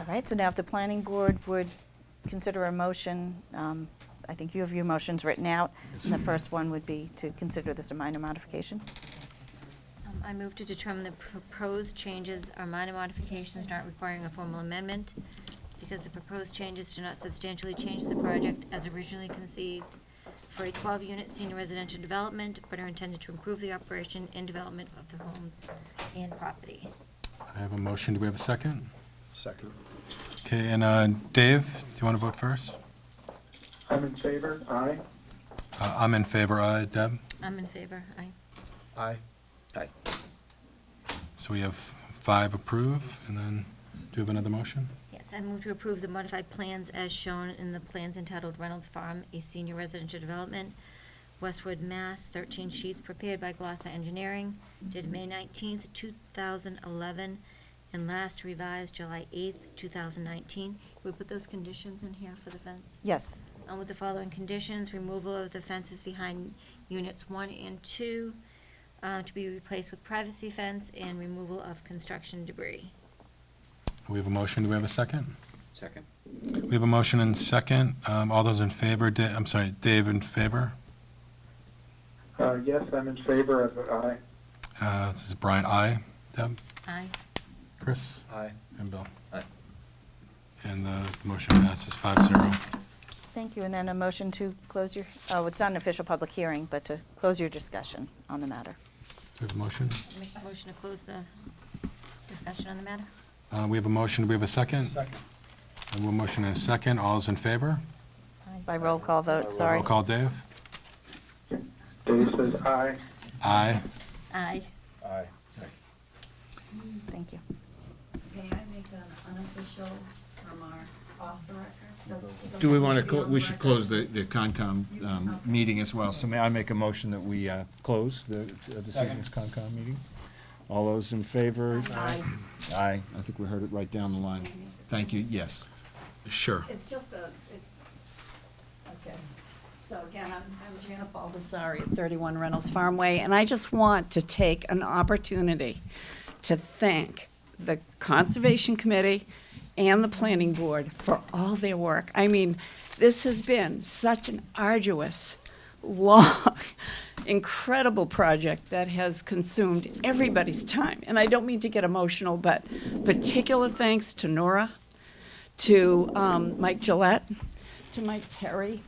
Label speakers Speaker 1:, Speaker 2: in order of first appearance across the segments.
Speaker 1: All right, so now if the planning board would consider a motion, um, I think you have your motions written out. And the first one would be to consider this a minor modification.
Speaker 2: Um, I move to determine the proposed changes are minor modifications not requiring a formal amendment because the proposed changes do not substantially change the project as originally conceived for a 12-unit senior residential development, but are intended to improve the operation and development of the homes and property.
Speaker 3: I have a motion. Do we have a second?
Speaker 4: Second.
Speaker 3: Okay, and uh, Dave, do you want to vote first?
Speaker 5: I'm in favor, aye.
Speaker 3: Uh, I'm in favor, aye. Deb?
Speaker 2: I'm in favor, aye.
Speaker 4: Aye.
Speaker 3: So we have five approve, and then do you have another motion?
Speaker 2: Yes, I move to approve the modified plans as shown in the plans entitled Reynolds Farm, a senior residential development, Westwood, Mass., 13 sheets prepared by Glossa Engineering, dated May 19th, 2011, and last revised July 8th, 2019. We put those conditions in here for the fence?
Speaker 1: Yes,
Speaker 2: And with the following conditions, removal of the fences behind units one and two uh, to be replaced with privacy fence, and removal of construction debris.
Speaker 3: We have a motion. Do we have a second?
Speaker 4: Second.
Speaker 3: We have a motion and second. Um, All those in favor, Da- I'm sorry, Dave in favor?
Speaker 5: Uh, yes, I'm in favor of it, aye.
Speaker 3: Uh, This is Brian, aye. Deb?
Speaker 2: Aye.
Speaker 3: Chris?
Speaker 4: Aye.
Speaker 3: And Bill?
Speaker 4: Aye.
Speaker 3: And uh, the motion passes five zero.
Speaker 1: thank you. And then a motion to close your, oh, it's not an official public hearing, but to close your discussion on the matter.
Speaker 3: Do we have a motion?
Speaker 2: Make a motion to close the discussion on the matter?
Speaker 3: Uh, We have a motion. Do we have a second? We have a motion and a second. All those in favor?
Speaker 1: By roll call vote, sorry.
Speaker 3: Roll call, Dave?
Speaker 5: Dave says aye.
Speaker 3: Aye.
Speaker 2: Aye.
Speaker 4: Aye.
Speaker 1: Thank you.
Speaker 6: May I make an unofficial remark off the record? Doesn't
Speaker 7: Do we
Speaker 6: need
Speaker 7: want
Speaker 6: be
Speaker 7: to,
Speaker 6: on
Speaker 7: we should
Speaker 6: record.
Speaker 7: close the, the Concom um, meeting as well, so may I make a motion that we uh, close the the Decisions Concom meeting? All those in favor?
Speaker 6: Aye.
Speaker 7: Aye, I think we heard it right down the line. Thank you, yes.
Speaker 3: Sure.
Speaker 6: It's just a, it, okay. So again, I'm, I'm Janet Baldessari at 31 Reynolds Farmway, and I just want to take an opportunity to thank the Conservation Committee and the Planning Board for all their work. I mean, this has been such an arduous, long, incredible project that has consumed everybody's time. And I don't mean to get emotional, but particular thanks to Nora, to um, Mike Gillette, to Mike Terry.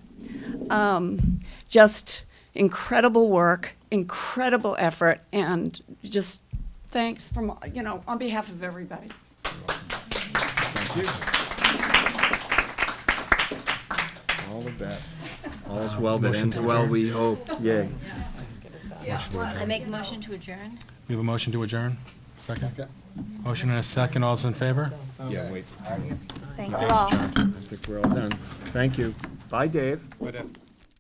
Speaker 6: Um, just incredible work, incredible effort, and just thanks from, you know, on behalf of everybody.
Speaker 7: All the best. All's well that ends well, we hope, yay.
Speaker 2: I make a motion to adjourn?
Speaker 3: We have a motion to adjourn? Second? Motion and a second. All those in favor?
Speaker 7: Yeah, wait,
Speaker 1: Thank you all.
Speaker 7: I think we're all done. Thank you. Bye, Dave.
Speaker 4: But if